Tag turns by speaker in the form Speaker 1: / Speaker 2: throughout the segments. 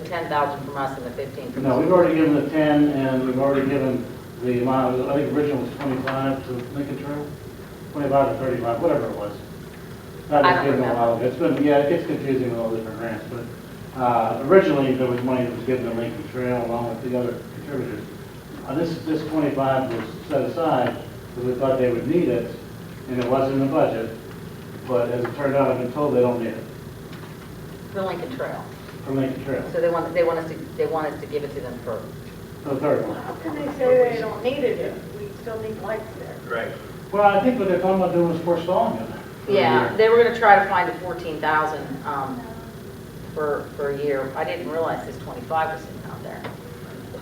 Speaker 1: ten thousand from us and the fifteen from
Speaker 2: No, we've already given the 10, and we've already given the amount, I think original was 25 to Lincoln Trail, 25 to 35, whatever it was. That
Speaker 1: I
Speaker 2: was
Speaker 1: don't
Speaker 2: given a
Speaker 1: remember.
Speaker 2: while ago. It's been, yeah, it gets confusing with all the different grants, but uh, originally, there was money that was given to Lincoln Trail along with the other contributors. Uh, This, this 25 was set aside, because we thought they would need it, and it was in the budget, but as it turned out, I've been told they don't need it
Speaker 1: For Lincoln Trail.
Speaker 2: from Lincoln Trail,
Speaker 1: So they want, they want us to, they want us to give it to them for,
Speaker 2: the third one.
Speaker 3: How can they say they don't need it if we still need lights there?
Speaker 4: Right.
Speaker 2: Well, I think what they're talking about doing is forestalling it. for a
Speaker 1: yeah,
Speaker 2: year.
Speaker 1: they were gonna try to find the fourteen thousand, um, for, for a year. I didn't realize this twenty-five was sitting out there.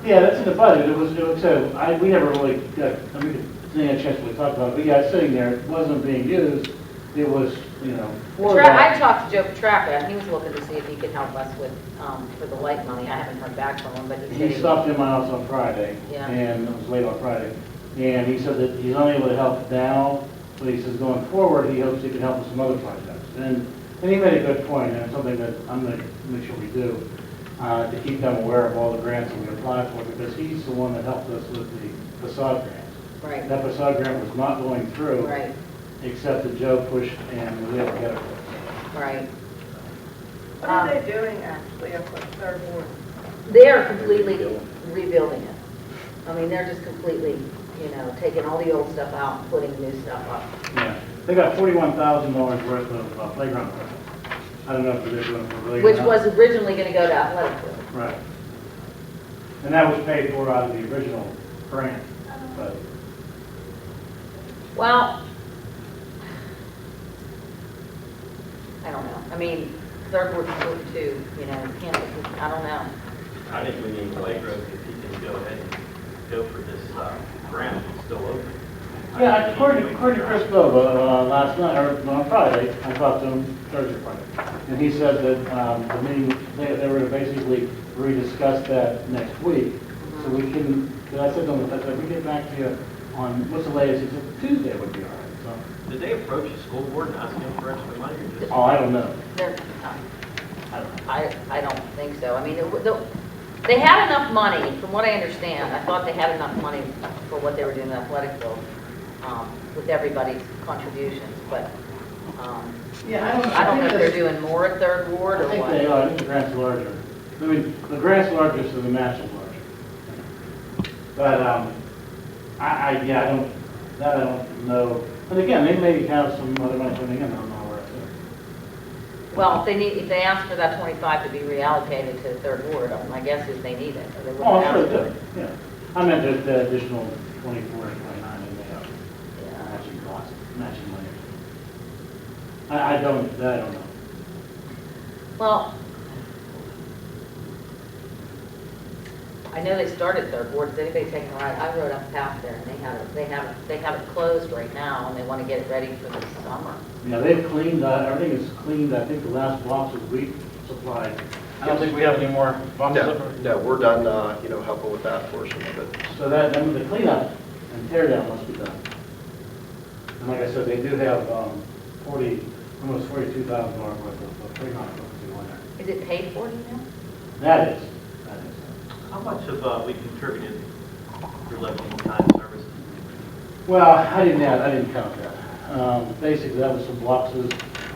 Speaker 2: Yeah, that's in the budget, it was, it was, so I, we never really got, I mean, didn't have a chance to talk about it, but yeah, it's sitting there, it wasn't being used, it was, you know, for
Speaker 1: Tra- I
Speaker 2: that.
Speaker 1: talked to Joe Petracca, and he was looking to see if he could help us with, um, for the light money. I haven't heard back from him, but he said.
Speaker 2: He stopped in my house on Friday,
Speaker 1: Yeah.
Speaker 2: and it was late on Friday, and he said that he's unable to help now, but he says going forward, he hopes he can help with some other projects. And, and he made a good point, and it's something that I'm gonna make sure we do, uh, to keep them aware of all the grants that we apply for, because he's the one that helped us with the facade grants.
Speaker 1: Right,
Speaker 2: That facade grant was not going through.
Speaker 1: right,
Speaker 2: except that Joe pushed and we had to get it.
Speaker 1: right.
Speaker 3: What are they doing actually up at Third Ward?
Speaker 1: They are completely rebuilding it. I mean, they're just completely, you know, taking all the old stuff out, and putting new stuff up.
Speaker 2: Yeah, they got forty-one thousand dollars worth of uh, playground equipment. I don't know if they're doing it for really.
Speaker 1: Which was originally gonna go to athletic field.
Speaker 2: Right. And that was paid for out of the original grant, but,
Speaker 1: Well, I don't know. I mean, third ward, fourth too, you know, can't, I don't know.
Speaker 4: I think we need Blake Road, if he can go ahead and go for this, uh, grant, it's still open.
Speaker 2: yeah, according, according to Chris Bova, uh, last night, or on Friday, I talked to him Thursday, Friday. And he said that, um, the meeting, they, they were basically rediscuss that next week. So we can, but I said to him, I said, we get back to you on, what's the latest, he said, Tuesday would be all right, so.
Speaker 4: Did they approach the school board and ask them for extra money or just?
Speaker 2: Oh, I don't know.
Speaker 1: They're, uh,
Speaker 2: I don't know.
Speaker 1: I, I don't think so. I mean, it- the- they had enough money, from what I understand, I thought they had enough money for what they were doing in athletic field, um, with everybody's contributions, but, um,
Speaker 2: Yeah, I don't.
Speaker 1: I don't know if they're
Speaker 2: think
Speaker 1: doing more at Third
Speaker 2: that's-
Speaker 1: Ward or
Speaker 2: I think they
Speaker 1: what.
Speaker 2: are, I think the grant's larger. I mean, the grant's larger, so the match is larger. But, um, I, I, yeah, I don't, that I don't know. And again, they may have some other money coming in, I don't know where it's at.
Speaker 1: Well, if they need, if they ask for that twenty-five to be reallocated to Third Ward, um, my guess is they need it, or they
Speaker 2: Oh,
Speaker 1: wouldn't
Speaker 2: I'm sure
Speaker 1: ask
Speaker 2: they
Speaker 1: for it.
Speaker 2: do, yeah. I meant just the additional twenty-four and twenty-nine in there, matching costs, matching money. I, I don't, that I don't know.
Speaker 1: Well, I know they started Third Ward, is anybody taking a ride? I rode up past there and they have, it- they have, it- they have it closed right now and they want to get it ready for the summer.
Speaker 2: Yeah, they've cleaned, uh, everything is cleaned, I think the last box was wheat supplied. I don't think we have any more boxes up
Speaker 5: No, no, we're done, uh, you know, helping with that portion of it.
Speaker 2: there. So that, then the cleanup and tear down must be done. And like I said, they do have um, forty, almost forty-two thousand dollars worth of of pre-con equipment on there.
Speaker 1: Is it paid for, do you know?
Speaker 2: That is, that is.
Speaker 4: How much have, uh, we contributed for level time services?
Speaker 2: Well, I didn't add, I didn't count that. Um, Basically, that was some boxes,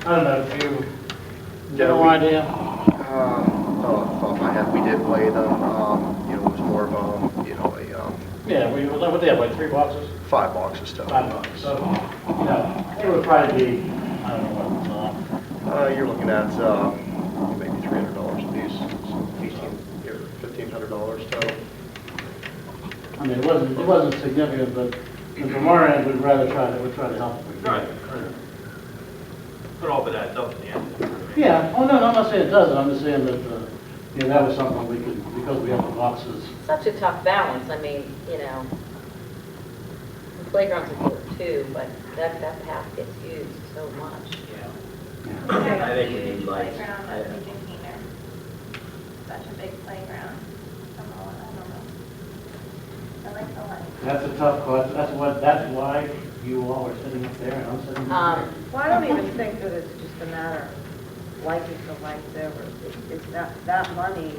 Speaker 2: I don't know if you, no
Speaker 5: Yeah,
Speaker 2: idea?
Speaker 5: we- um, Uh, Off the top of my head, we did weigh them, um, you know, it was more of, um, you know, a, um,
Speaker 2: Yeah, we, what they have, like three boxes?
Speaker 5: five boxes total.
Speaker 2: Five bucks, so, you know, it would probably be, I don't know what, uh,
Speaker 5: Uh, you're looking at, um, maybe three hundred dollars a piece, so eighteen, or fifteen hundred dollars total.
Speaker 2: I mean, it wasn't, it wasn't significant, but from our end, we'd rather try to, we'd try to help. if we could.
Speaker 4: Right. Put all of that up in the end.
Speaker 2: Yeah, oh, no, no, I'm not saying it doesn't, I'm just saying that, uh, you know, that was something we could, because we have the boxes.
Speaker 1: Such a tough balance, I mean, you know, the playgrounds are good too, but that, that path gets used so much.
Speaker 4: Yeah.
Speaker 2: Yeah.
Speaker 4: I think we need lights.
Speaker 6: Playground at
Speaker 4: Yeah.
Speaker 6: Lincoln Keener. Such a big playground. Come on, I don't know. I like the lights.
Speaker 2: That's a tough question, that's what, that's why you all are sitting up there and I'm sitting up
Speaker 1: Um,
Speaker 2: there.
Speaker 3: Well, I don't even think that it's just a matter of liking the lights over. It's- It's not, that money